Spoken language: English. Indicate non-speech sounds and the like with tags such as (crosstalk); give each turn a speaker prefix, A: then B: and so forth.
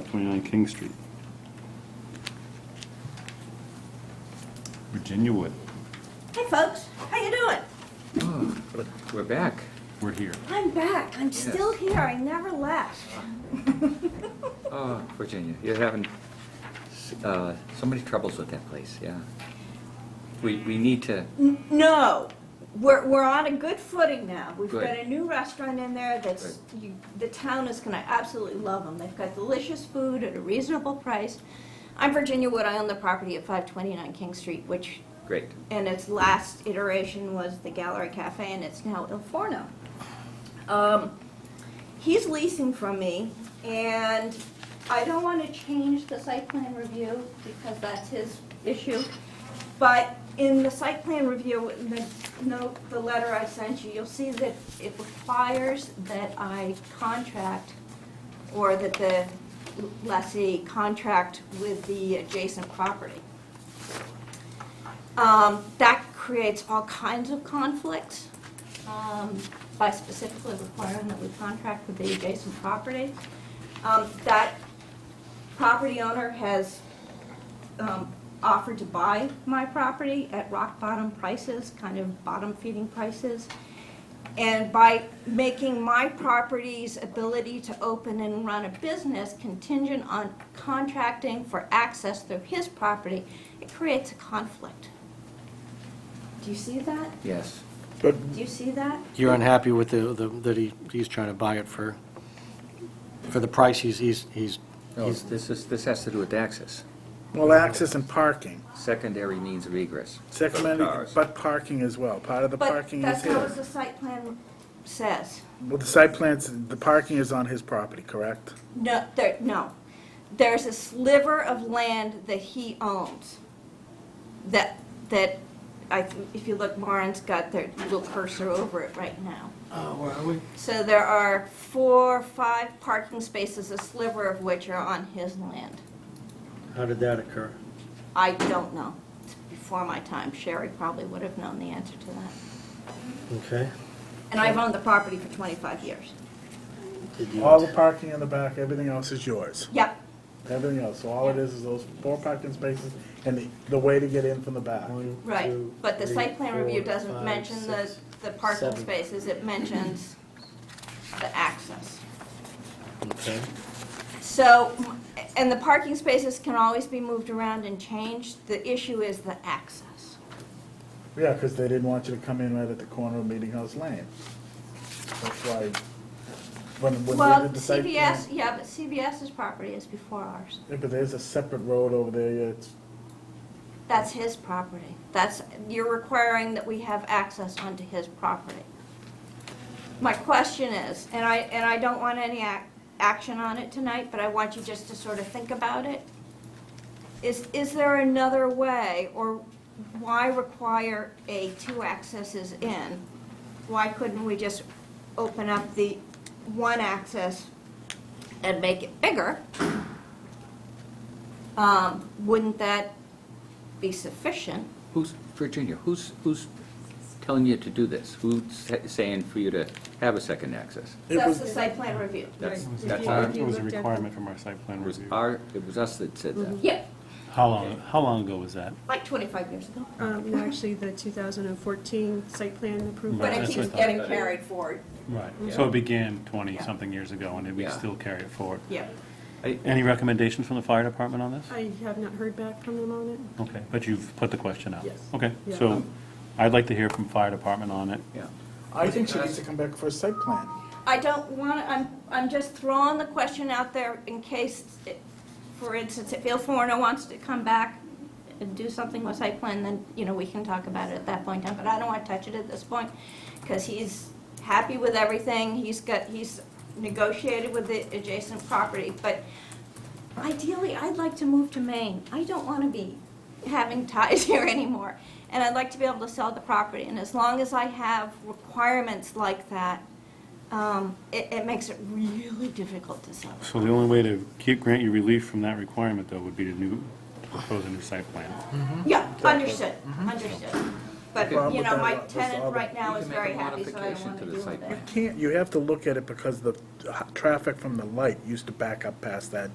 A: 529 King Street.
B: Virginia Wood,
C: Hey folks, how you doing?
D: We're back.
B: we're here.
C: I'm back. I'm still
D: Yes.
C: here. I never left.
D: Oh, Virginia, you're having s- uh, so many troubles with that place, yeah. We, we need to,
C: N- No, we're, we're on a good footing now. We've
D: Good.
C: got a new restaurant in there that's, you, the town is gonna absolutely love them. They've got delicious food at a reasonable price. I'm Virginia Wood. I own the property at 529 King Street, which
D: great,
C: and its last iteration was the Gallery Cafe, and it's now Il Forno. Um, he's leasing from me, and I don't want to change the site plan review because that's his issue. But in the site plan review, in the note, the letter I sent you, you'll see that it requires that I contract or that the lessee contract with the adjacent property. Um, That creates all kinds of conflicts um, by specifically requiring that we contract with the adjacent property. Um, That property owner has um, offered to buy my property at rock bottom prices, kind of bottom feeding prices. And by making my property's ability to open and run a business contingent on contracting for access through his property, it creates a conflict. Do you see that?
D: yes.
C: Do you see that?
E: You're unhappy with the, the- that he, he's trying to buy it for, for the price he's, he's, he's,
D: No, this is, this has to do with access,
F: Well, access and parking,
D: secondary means of egress.
F: second, amendment,
D: cars.
F: but parking as well, part of the
C: But
F: parking is
C: that's not what
F: his.
C: the site plan says.
F: Well, the site plans, the parking is on his property, correct?
C: No, there, no. There's a sliver of land that he owns. That, that, I, th- if you look, Marin's got their little cursor over it right now.
E: oh, where are we?
C: So there are four, five parking spaces, a sliver of which are on his land.
E: How did that occur?
C: I don't know. It's before my time. Sherry probably would have known the answer to that.
E: Okay.
C: And I've owned the property for twenty-five years.
E: Did you-
F: All the parking in the back, everything else is yours,
C: Yep,
F: everything else, so all it is is those four parking spaces and the, the way to get in from the back.
E: One,
C: right.
E: two,
C: But the
E: three,
C: site plan review
E: four,
C: doesn't
E: five,
C: mention the,
E: six.
C: the parking
E: seven.
C: spaces. It mentions the access.
E: Okay.
C: So, and the parking spaces can always be moved around and changed. The issue is the access.
F: Yeah, because they didn't want you to come in right at the corner of Meeting House Lane. That's why, when, when
C: Well,
F: we did the site. plan-
C: CBS, yeah, but CBS's property is before ours.
F: Yeah, but there's a separate road over there, yeah, it's,
C: That's his property. That's, you're requiring that we have access onto his property. My question is, and I, and I don't want any ac- action on it tonight, but I want you just to sort of think about it. Is, is there another way, or why require a two accesses in? Why couldn't we just open up the one access and make it bigger? Um, Wouldn't that be sufficient?
D: Who's, Virginia, who's, who's telling you to do this? Who's sa- saying for you to have a second access?
F: it
C: That's
F: was,
C: the site plan review.
D: That's,
A: It was a
D: that's
A: requirement-
D: our,
A: It was a requirement from our site plan
D: it was
A: review.
D: our, it was us that said that.
C: Yeah,
B: How long, how long ago was that?
C: like 25 years ago.
G: Um, no, actually, the 2014 site plan approval.
C: But it
B: that's
C: keeps
B: what I
C: getting carried forward.
B: Right.
D: Yeah.
B: So it began 20-something years ago, and we
D: Yeah.
B: still carry it forward.
C: Yeah.
D: I-
B: Any recommendations from the fire department on this?
G: I have not heard back from them on it.
B: Okay, but you've put the question out?
G: Yes.
B: Okay,
G: Yeah.
B: so I'd like to hear from fire department on it.
D: Yeah,
F: I think she needs to come back for a site plan.
C: I don't want, to. I'm, I'm just throwing the question out there in case, it- for instance, if Il Forno wants to come back and do something with site plan, then, you know, we can talk about it at that point in time, but I don't want to touch it at this point, because he's happy with everything, he's got, he's negotiated with the adjacent property, but ideally, I'd like to move to Maine. I don't want to be having ties (laughs) here anymore, and I'd like to be able to sell the property, and as long as I have requirements like that, um, it, it makes it really difficult to
D: Mm-hmm.
C: sell.
B: So the only way to keep, grant you relief from that requirement, though, would be to new, propose a new site plan.
C: Yeah, understood,
D: Mm-hmm.
C: understood. But,
D: The problem
C: you
F: with
C: know,
F: that
C: my
F: was all
C: tenant
F: the-
C: right now
D: You
C: is
D: can make a
C: very happy, so I don't
D: modification
C: want
D: to
C: to
D: the
C: deal
D: site
C: with it.
D: plan.
F: Can't, you have to look at it because the uh, traffic from the light used to back up past that